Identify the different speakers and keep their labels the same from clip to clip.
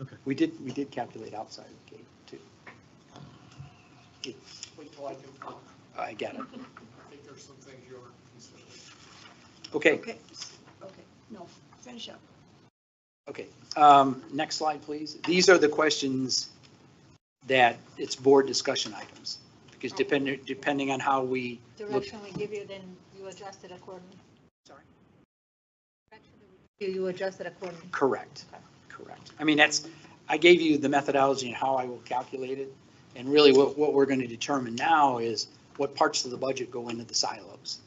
Speaker 1: Okay.
Speaker 2: We did, we did calculate outside the gate too. It's-
Speaker 3: Wait till I do, work.
Speaker 2: I get it.
Speaker 3: I think there's some things you aren't considering.
Speaker 2: Okay,
Speaker 4: Okay, okay, no, finish up.
Speaker 2: okay. Um, Next slide, please. These are the questions that it's board discussion items. Because depending, depending on how we look
Speaker 5: direction we give you, then you adjust it accordingly.
Speaker 2: Sorry?
Speaker 5: You, you adjust it accordingly.
Speaker 2: Correct, correct. I mean, that's, I gave you the methodology and how I will calculate it. And really what, what we're going to determine now is what parts of the budget go into the silos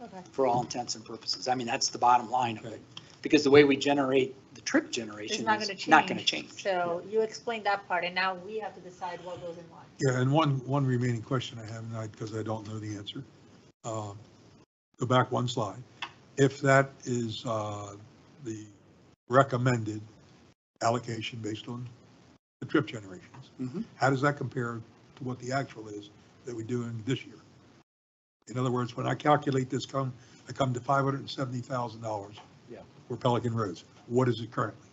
Speaker 5: Okay.
Speaker 2: for all intents and purposes. I mean, that's the bottom line of it. Because the way we generate the trip generation
Speaker 5: not
Speaker 2: is
Speaker 5: gonna
Speaker 2: not going to
Speaker 5: change.
Speaker 2: change.
Speaker 5: So you explained that part, and now we have to decide what goes in what.
Speaker 6: Yeah, and one, one remaining question I have, and I, because I don't know the answer. Um, Go back one slide. If that is uh, the recommended allocation based on the trip generations,
Speaker 2: Mhm.
Speaker 6: how does that compare to what the actual is that we're doing this year? In other words, when I calculate this come, I come to $570,000
Speaker 2: Yeah.
Speaker 6: for Pelican Roads. What is it currently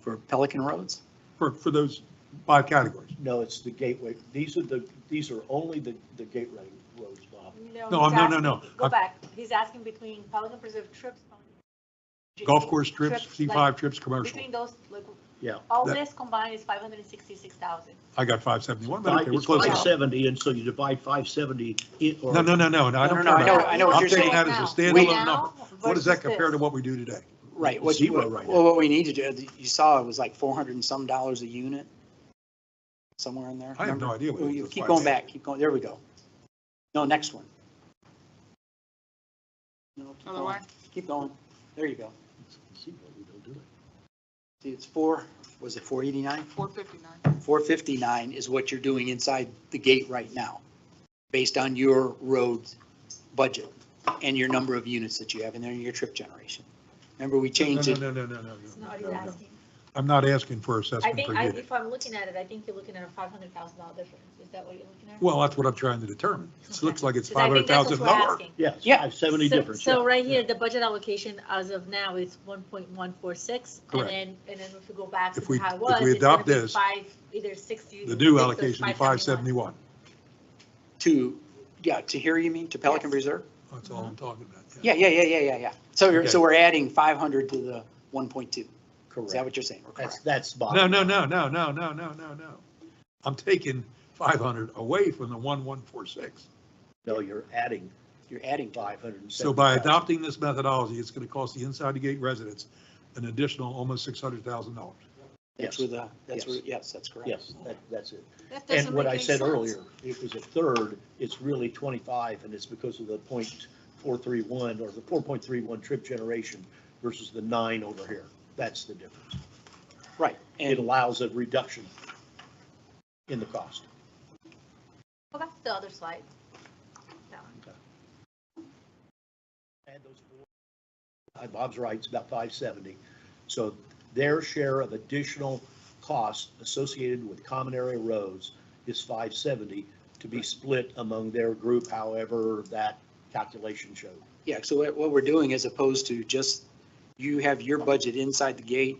Speaker 2: For Pelican Roads?
Speaker 6: for, for those five categories?
Speaker 1: No, it's the gateway. These are the, these are only the, the gateway roads, Bob.
Speaker 6: No,
Speaker 5: he's
Speaker 6: no, no,
Speaker 5: asking-
Speaker 6: no.
Speaker 5: Go
Speaker 6: I'm-
Speaker 5: back. He's asking between Pelican Preserve trips. Pelican-
Speaker 6: Golf course trips,
Speaker 5: like,
Speaker 6: C5 trips, commercial.
Speaker 5: Between those, like,
Speaker 1: Yeah.
Speaker 5: all
Speaker 6: That-
Speaker 5: this combined is five hundred and sixty-six thousand.
Speaker 6: I got 571, but okay, we're
Speaker 1: It's
Speaker 6: close
Speaker 1: five
Speaker 6: enough.
Speaker 1: seventy, and so you divide five seventy.
Speaker 6: No, no, no, no, no, I
Speaker 2: No,
Speaker 6: don't
Speaker 2: no,
Speaker 6: care
Speaker 2: I know-
Speaker 6: about
Speaker 2: I know what you're saying.
Speaker 6: I'm taking that as a
Speaker 2: We-
Speaker 6: standalone number. What does that compare to what we do today?
Speaker 2: Right. What,
Speaker 1: Zero
Speaker 2: what-
Speaker 1: right now.
Speaker 2: well, what we need to do, you saw it was like 400 and some dollars a unit, somewhere in there.
Speaker 6: I have
Speaker 2: remember?
Speaker 6: no idea what
Speaker 2: Oh,
Speaker 6: it
Speaker 2: you
Speaker 6: is.
Speaker 2: Keep going back, keep going, there we go. No, next one. No, keep
Speaker 4: Other
Speaker 2: going.
Speaker 4: way?
Speaker 2: Keep going, there you go. See, it's four, was it four eighty-nine?
Speaker 4: Four fifty-nine.
Speaker 2: Four fifty-nine is what you're doing inside the gate right now, based on your road budget and your number of units that you have in there and your trip generation. Remember, we changed
Speaker 6: No,
Speaker 2: it,
Speaker 6: no, no, no, no, no,
Speaker 5: It's
Speaker 6: no,
Speaker 5: not
Speaker 6: no,
Speaker 5: what he's
Speaker 6: no.
Speaker 5: asking.
Speaker 6: I'm not asking for
Speaker 5: I
Speaker 6: assessment
Speaker 5: think,
Speaker 6: per
Speaker 5: I-
Speaker 6: unit.
Speaker 5: if I'm looking at it, I think you're looking at a five hundred thousand dollar difference. Is that what you're looking at?
Speaker 6: Well, that's what I'm trying to determine. It looks like it's
Speaker 5: 'Cause I think that's
Speaker 6: 500,000
Speaker 5: what we're
Speaker 6: lower.
Speaker 5: asking.
Speaker 1: Yes,
Speaker 2: Yeah.
Speaker 1: five seventy
Speaker 5: So-
Speaker 1: difference.
Speaker 5: So
Speaker 1: yeah.
Speaker 5: right here, the budget allocation as of now is one point one four six, and
Speaker 6: Correct.
Speaker 5: then, and then if we go back
Speaker 6: If we-
Speaker 5: to how it
Speaker 6: if
Speaker 5: was.
Speaker 6: we
Speaker 5: it's gonna
Speaker 6: adopt
Speaker 5: be
Speaker 6: this,
Speaker 5: Five, either sixty.
Speaker 6: The new allocation is 571.
Speaker 2: to, yeah, to here you mean, to Pelican
Speaker 5: Yes.
Speaker 2: Reserve?
Speaker 6: That's all I'm
Speaker 5: Mm-hmm.
Speaker 6: talking about.
Speaker 2: Yeah, yeah, yeah, yeah, yeah, yeah. So you're,
Speaker 6: Okay.
Speaker 2: so we're adding five hundred to the one point two. Is that
Speaker 1: Correct.
Speaker 2: what you're saying? We're
Speaker 1: That's,
Speaker 2: correct.
Speaker 1: that's Bob.
Speaker 6: No, no, no, no, no, no, no, no, no. I'm taking 500 away from the 1146.
Speaker 1: No, you're adding
Speaker 2: You're adding to it.
Speaker 1: five hundred and seventy.
Speaker 6: So by adopting this methodology, it's going to cost the inside the gate residents an additional almost $600,000.
Speaker 2: That's
Speaker 1: Yes.
Speaker 2: where the, that's where,
Speaker 1: Yes.
Speaker 2: yes, that's correct.
Speaker 1: Yes, that, that's it.
Speaker 4: That
Speaker 1: And
Speaker 4: doesn't
Speaker 1: what
Speaker 4: make
Speaker 1: I
Speaker 4: any
Speaker 1: said
Speaker 4: sense.
Speaker 1: earlier, it was a third, it's really 25, and it's because of the .431 or the 4.31 trip generation versus the nine over here. That's the difference.
Speaker 2: Right.
Speaker 1: It
Speaker 2: And
Speaker 1: allows a reduction in the cost.
Speaker 5: Go back to the other slide. That one.
Speaker 1: Add those four. Uh, Bob's right, it's about 570. So their share of additional costs associated with common area roads is 570 to be split among their group, however that calculation showed.
Speaker 2: yeah, so what, what we're doing as opposed to just, you have your budget inside the gate.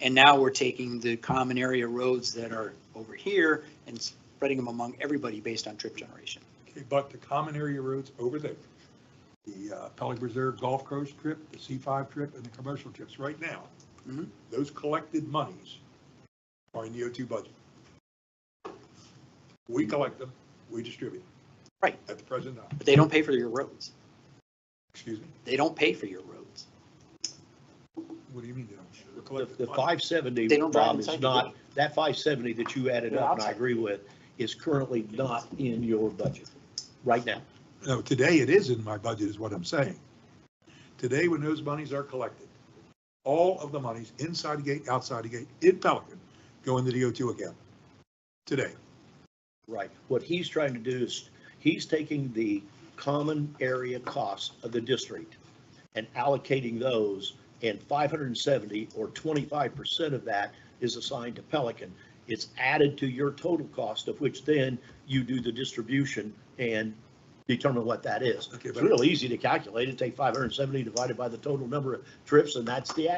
Speaker 2: And now we're taking the common area roads that are over here and spreading them among everybody based on trip generation.
Speaker 6: Okay, but the common area roads over there, the uh, Pelican Reserve Golf Course trip, the C5 trip, and the commercial trips right now,
Speaker 2: Mhm.
Speaker 6: those collected monies are in the O2 budget. We collect them, we distribute. them.
Speaker 2: Right.
Speaker 6: At the present time,
Speaker 2: But they don't pay for your roads.
Speaker 6: excuse me,
Speaker 2: They don't pay for your roads.
Speaker 6: what do you mean? they don't? We're
Speaker 1: The
Speaker 6: collecting
Speaker 1: the
Speaker 6: money.
Speaker 1: 570,
Speaker 2: They don't drive
Speaker 1: Bob,
Speaker 2: inside
Speaker 1: is
Speaker 2: the
Speaker 1: not, that 570 that you added
Speaker 2: They're
Speaker 1: up, and I
Speaker 2: outside.
Speaker 1: agree with, is currently not in your budget right now.
Speaker 6: No, today it is in my budget is what I'm saying. Today, when those monies are collected, all of the monies inside the gate, outside the gate, in Pelican, go into the O2 account. Today.
Speaker 1: Right. What he's trying to do is, he's taking the common area cost of the district and allocating those, and 570 or 25% of that is assigned to Pelican. It's added to your total cost, of which then you do the distribution and determine what that is.
Speaker 6: Okay,
Speaker 1: It's
Speaker 6: but-
Speaker 1: real easy to calculate. It take 570 divided by the total number of trips, and that's the